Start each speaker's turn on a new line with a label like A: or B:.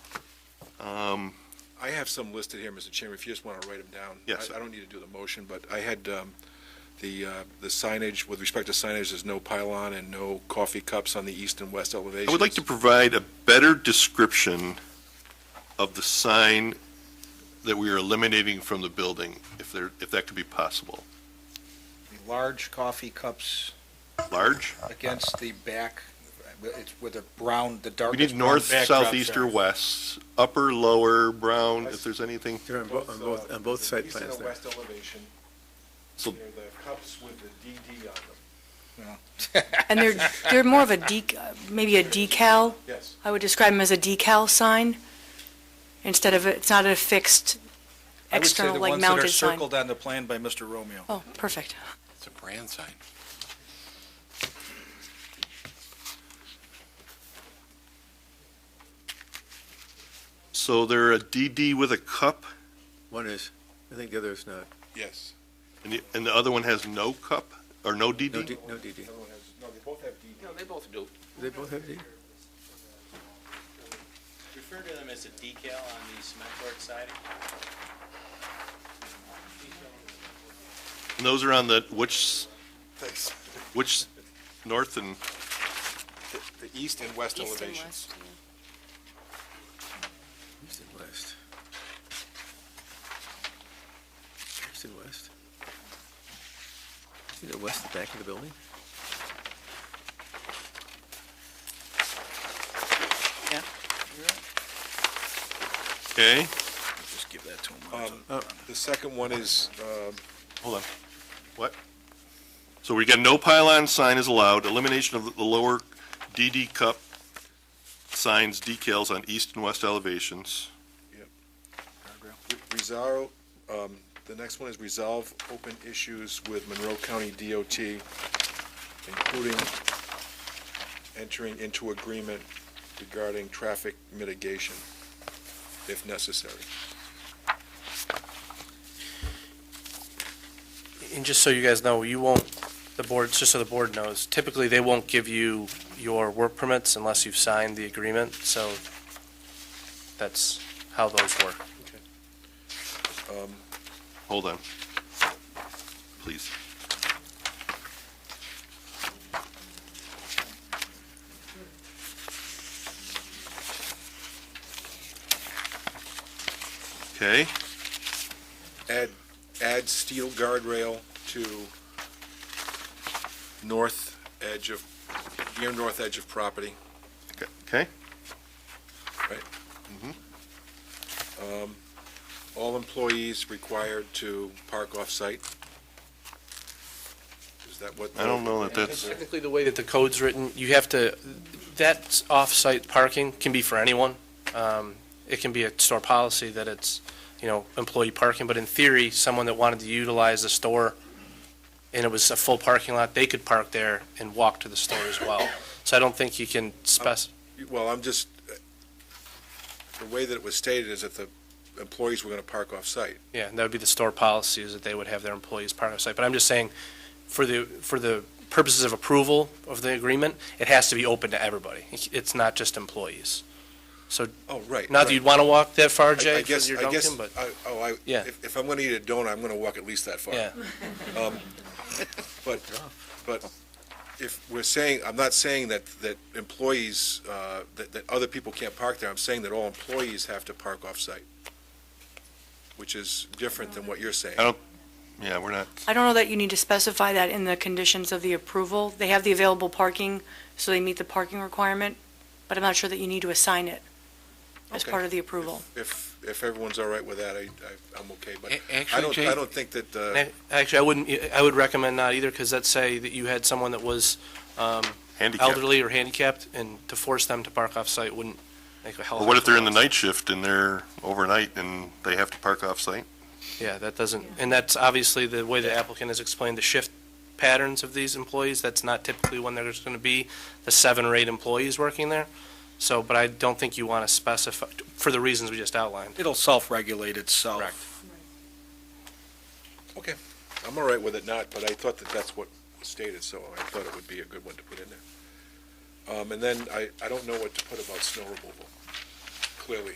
A: Um,
B: I have some listed here, Mr. Chairman, if you just want to write them down.
A: Yes,
B: I-
A: sir.
B: I don't need to do the motion, but I had um, the uh, the signage, with respect to signage, there's no pylon and no coffee cups on the east and west elevations.
A: I would like to provide a better description of the sign that we are eliminating from the building, if there, if that could be possible.
C: The large coffee cups
A: Large?
C: against the back, it's with a brown, the
A: We
C: darkest
A: need
C: brown
A: north,
C: backdrop.
A: south, east,
C: there.
A: or west, upper, lower, brown, if there's anything.
D: They're on both, on both, on both site plans
B: East and
D: there.
B: west elevation,
A: So-
B: they're the cups with the DD on them.
E: And they're, they're more of a dec, maybe a decal,
B: Yes.
E: I would describe them as a decal sign, instead of, it's not a fixed external,
C: I
E: like
C: would
E: mounted
C: say the ones that are
E: sign.
C: circled on the plan by Mr. Romeo.
E: Oh, perfect.
F: It's a brand sign.
A: So they're a DD with a cup,
D: One is, I think the other is not.
B: Yes.
A: and the, and the other one has no cup, or no
D: No,
A: DD?
D: D- no DD.
B: Everyone has, no, they both have DD.
G: No, they both do.
D: They both have D.
G: Refer to them as a decal on the cement work siding.
A: And those are on the, which, which, north and,
B: The east and west
E: East and
B: elevations.
E: west.
D: East and west. East and west. See the west, the back of the building?
A: okay?
C: Just give that to him.
B: Um, The second one is, um,
A: Hold on. What? So we got no pylon sign is allowed, elimination of the lower DD cup signs decals on east and west elevations.
B: Resolve, um, the next one is resolve open issues with Monroe County DOT, including entering into agreement regarding traffic mitigation, if necessary.
H: And just so you guys know, you won't, the board, just so the board knows, typically they won't give you your work permits unless you've signed the agreement, so that's how those work.
A: Hold on. Please. Okay,
B: Add, add steel guardrail to north edge of, near north edge of property.
A: okay,
B: All employees required to park off-site. Is that what?
A: I don't know that that's,
H: Technically, the way that the code's written, you have to, that off-site parking can be for anyone. Um, It can be a store policy that it's, you know, employee parking, but in theory, someone that wanted to utilize the store and it was a full parking lot, they could park there and walk to the store as well. So I don't think you can spec,
B: Well, I'm just, the way that it was stated is that the employees were going to park off-site.
H: Yeah, and that would be the store policy is that they would have their employees part of the site. But I'm just saying, for the, for the purposes of approval of the agreement, it has to be open to everybody. It's not just employees.
B: Oh, right.
H: Not that you'd want to walk that far,
B: right. I-
H: Jay,
B: I guess-
H: for your
B: I guess
H: Dunkin', but,
B: I- Oh, I,
H: Yeah.
B: if if I'm going to eat a donut, I'm going to walk at least that far. Um,
H: yeah.
B: But, but if we're saying, I'm not saying that, that employees, uh, that, that other people can't park there. I'm saying that all employees have to park off-site, which is different than what you're saying.
A: I don't- yeah, we're not,
E: I don't know that you need to specify that in the conditions of the approval. They have the available parking, so they meet the parking requirement, but I'm not sure that you need to assign it as
B: Okay.
E: part of the approval.
B: If, if everyone's all right with that, I, I- I'm okay. But
F: A-
B: I
F: Actually,
B: don't, I
F: Jay,
B: don't think that, uh,
H: And I- Actually, I wouldn't, I would recommend not either, because let's say that you had someone that was um,
A: handicapped.
H: elderly or handicapped, and to force them to park off-site wouldn't make a hell of
A: Or
H: a
A: what if they're in the
H: difference.
A: night shift and they're overnight and they have to park off-site?
H: Yeah, that doesn't, and that's obviously the way the applicant has explained the shift patterns of these employees. That's not typically when there's going to be the seven or eight employees working there. So, but I don't think you want to specify, for the reasons we just outlined.
C: It'll self-regulate itself.
H: Correct.
B: okay, I'm all right with it not, but I thought that that's what was stated, so I thought it would be a good one to put in there. Um, And then I, I don't know what to put about snow removal, clearly.